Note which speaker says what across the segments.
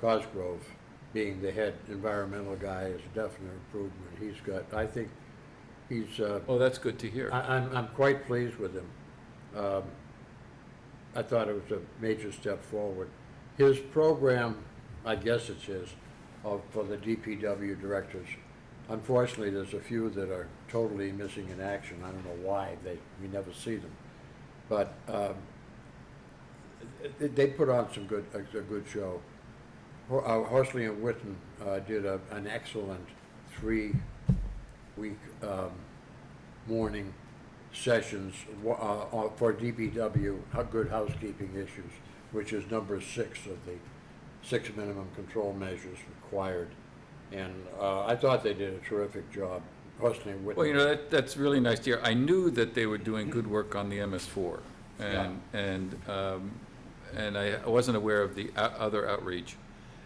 Speaker 1: Cosgrove, being the head environmental guy, is a definite improvement. He's got, I think, he's, uh,
Speaker 2: Oh, that's good to hear.
Speaker 1: I, I'm, I'm quite pleased with him. Um, I thought it was a major step forward. His program, I guess it's his, of, for the DPW directors. Unfortunately, there's a few that are totally missing in action. I don't know why, they, we never see them. But, um, they, they put on some good, a, a good show. Ho- uh, Horsley and Witten, uh, did a, an excellent three-week, um, morning sessions wa- uh, uh, for DBW, uh, good housekeeping issues, which is number six of the six minimum control measures required. And uh, I thought they did a terrific job, Horsley and Whitney.
Speaker 2: Well, you know, that, that's really nice to hear. I knew that they were doing good work on the MS4. And, and, um, and I I wasn't aware of the o- other outreach.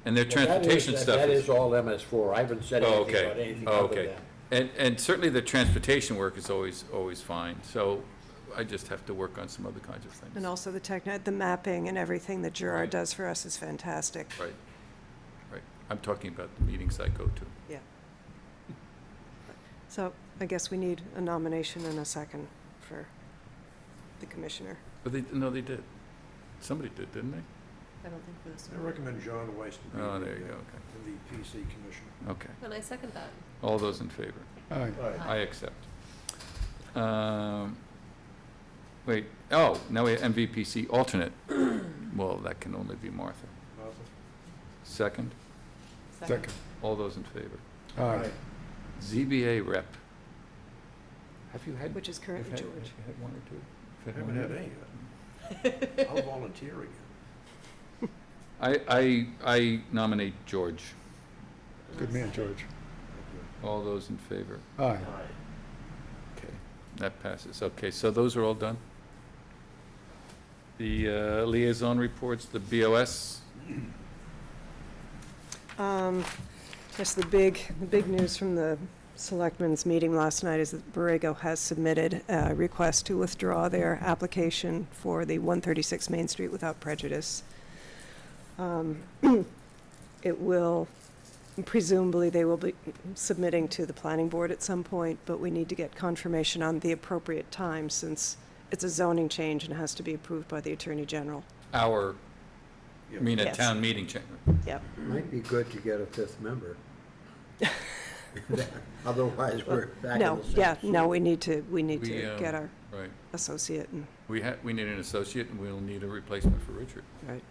Speaker 2: And their
Speaker 1: Well, that is-
Speaker 2: transportation
Speaker 1: that-
Speaker 2: stuff
Speaker 1: That
Speaker 2: is.
Speaker 1: is all MS4. I haven't said
Speaker 2: Oh,
Speaker 1: anything
Speaker 2: okay.
Speaker 1: about anything
Speaker 2: Oh,
Speaker 1: other
Speaker 2: okay.
Speaker 1: than.
Speaker 2: And, and certainly the transportation work is always, always fine. So I just have to work on some other kinds of things.
Speaker 3: And also the techni, the mapping and everything that
Speaker 2: Right.
Speaker 3: Gerard does for us is fantastic.
Speaker 2: Right, right. I'm talking about the meetings I go to.
Speaker 3: Yeah. So I guess we need a nomination and a second for the commissioner.
Speaker 2: But they, no, they did. Somebody did, didn't they?
Speaker 4: I don't think for this
Speaker 5: I
Speaker 4: one.
Speaker 5: recommend John Weiss to be
Speaker 2: Oh, there you
Speaker 5: the
Speaker 2: go,
Speaker 5: uh, the PC commissioner.
Speaker 2: okay, okay.
Speaker 4: And I second that.
Speaker 2: All those in favor? I accept. Um, Wait, oh, now we have MVPC alternate. Well, that can only be Martha. Second,
Speaker 5: Second.
Speaker 2: all those in favor.
Speaker 5: Aye.
Speaker 2: ZBA rep. Have you had?
Speaker 3: Which is
Speaker 2: have
Speaker 3: currently
Speaker 2: had-
Speaker 3: George.
Speaker 2: have you had one or two? Have
Speaker 5: I
Speaker 2: you had
Speaker 5: haven't
Speaker 2: one or
Speaker 5: had any
Speaker 2: two?
Speaker 5: yet. I'll volunteer again.
Speaker 2: I, I, I nominate George.
Speaker 6: Good man, George.
Speaker 2: All those in favor.
Speaker 6: Aye.
Speaker 2: Okay, that passes. Okay, so those are all done? The uh, liaison reports, the BOS,
Speaker 3: Um, Yes, the big, the big news from the selectmen's meeting last night is that Borrego has submitted a request to withdraw their application for the 136 Main Street without prejudice. Um, It will, presumably, they will be submitting to the planning board at some point, but we need to get confirmation on the appropriate time since it's a zoning change and has to be approved by the Attorney General.
Speaker 2: our, I
Speaker 5: Yeah.
Speaker 2: mean, a
Speaker 3: Yes.
Speaker 2: town meeting chamber.
Speaker 1: Might be good to get a fifth member. Otherwise, we're back in the
Speaker 3: No, yeah,
Speaker 1: same
Speaker 3: no, we need to, we need
Speaker 2: We,
Speaker 3: to
Speaker 2: um,
Speaker 3: get our
Speaker 2: Right.
Speaker 3: associate and
Speaker 2: We ha we need an associate, and we'll need a replacement for Richard.
Speaker 3: Right.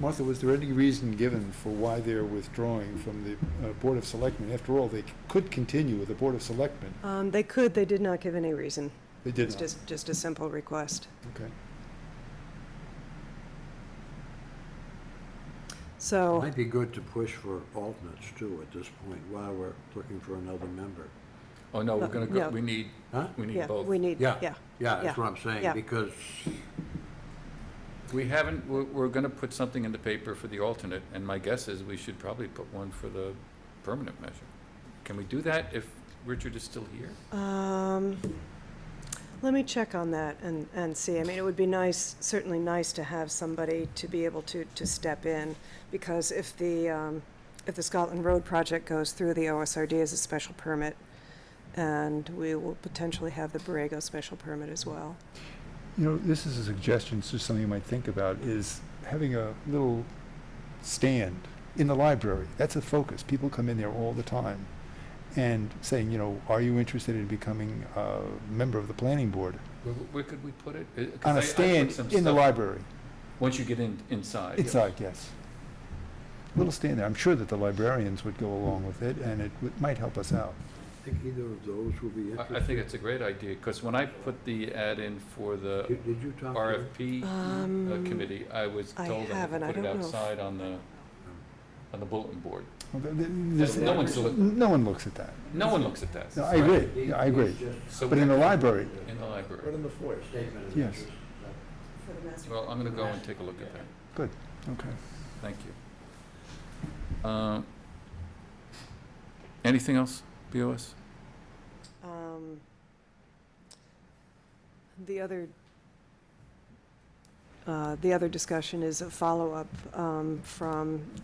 Speaker 6: Martha, was there any reason given for why they're withdrawing from the uh, Board of Selectmen? After all, they c- could continue with the Board of Selectmen.
Speaker 3: Um, they could, they did not give any reason.
Speaker 6: They
Speaker 3: It's
Speaker 6: did not.
Speaker 3: just, just a simple request.
Speaker 6: Okay.
Speaker 1: It
Speaker 3: So,
Speaker 1: Might be good to push for alternates too at this point while we're looking for another member.
Speaker 2: Oh, no, we're
Speaker 3: No,
Speaker 2: gonna go,
Speaker 3: no.
Speaker 2: we need,
Speaker 1: Huh?
Speaker 2: we need
Speaker 3: yeah,
Speaker 2: both.
Speaker 3: we need,
Speaker 1: Yeah.
Speaker 3: yeah,
Speaker 1: Yeah, that's
Speaker 3: Yeah,
Speaker 1: what I'm saying,
Speaker 3: yeah.
Speaker 1: because
Speaker 2: We haven't, we're, we're gonna put something in the paper for the alternate, and my guess is we should probably put one for the permanent measure. Can we do that if Richard is still here?
Speaker 3: um, let me check on that and, and see. I mean, it would be nice, certainly nice to have somebody to be able to, to step in, because if the, um, if the Scotland Road project goes through, the OSRD is a special permit, and we will potentially have the Borrego special permit as well.
Speaker 6: You know, this is a suggestion, it's just something you might think about, is having a little stand in the library. That's a focus. People come in there all the time. And saying, you know, are you interested in becoming a member of the planning board?
Speaker 2: Where, where could we put it? Uh, 'cause
Speaker 6: On
Speaker 2: I- I
Speaker 6: a
Speaker 2: put
Speaker 6: stand
Speaker 2: some
Speaker 6: in the
Speaker 2: stuff-
Speaker 6: library.
Speaker 2: Once you get in, inside.
Speaker 6: Inside, yes. Little stand there. I'm sure that the librarians would go along with it, and it would- might help us out.
Speaker 1: I think either of those will be
Speaker 2: I,
Speaker 1: interesting.
Speaker 2: I think it's a great idea, because when I put the ad in for the
Speaker 1: Did did you talk to her?
Speaker 2: RFP uh,
Speaker 3: Um,
Speaker 2: committee, I was
Speaker 3: I
Speaker 2: told I had to
Speaker 3: haven't. I
Speaker 2: put it
Speaker 3: don't know if-
Speaker 2: outside on the, on the bulletin board.
Speaker 6: Well, th- th- there's-
Speaker 2: No one's look-
Speaker 6: No one looks at that.
Speaker 2: No one looks at that.
Speaker 6: No, I agree, Yeah, I agree.
Speaker 2: So
Speaker 6: But in the library,
Speaker 2: In the
Speaker 5: Put
Speaker 2: library.
Speaker 5: in the foyer.
Speaker 1: Statement of
Speaker 6: Yes.
Speaker 1: interest.
Speaker 2: Well, I'm gonna go and take a look at that.
Speaker 6: okay.
Speaker 2: Thank you. Um, Anything else, BOS?
Speaker 3: Um, The other, uh, the other discussion is a follow-up um, from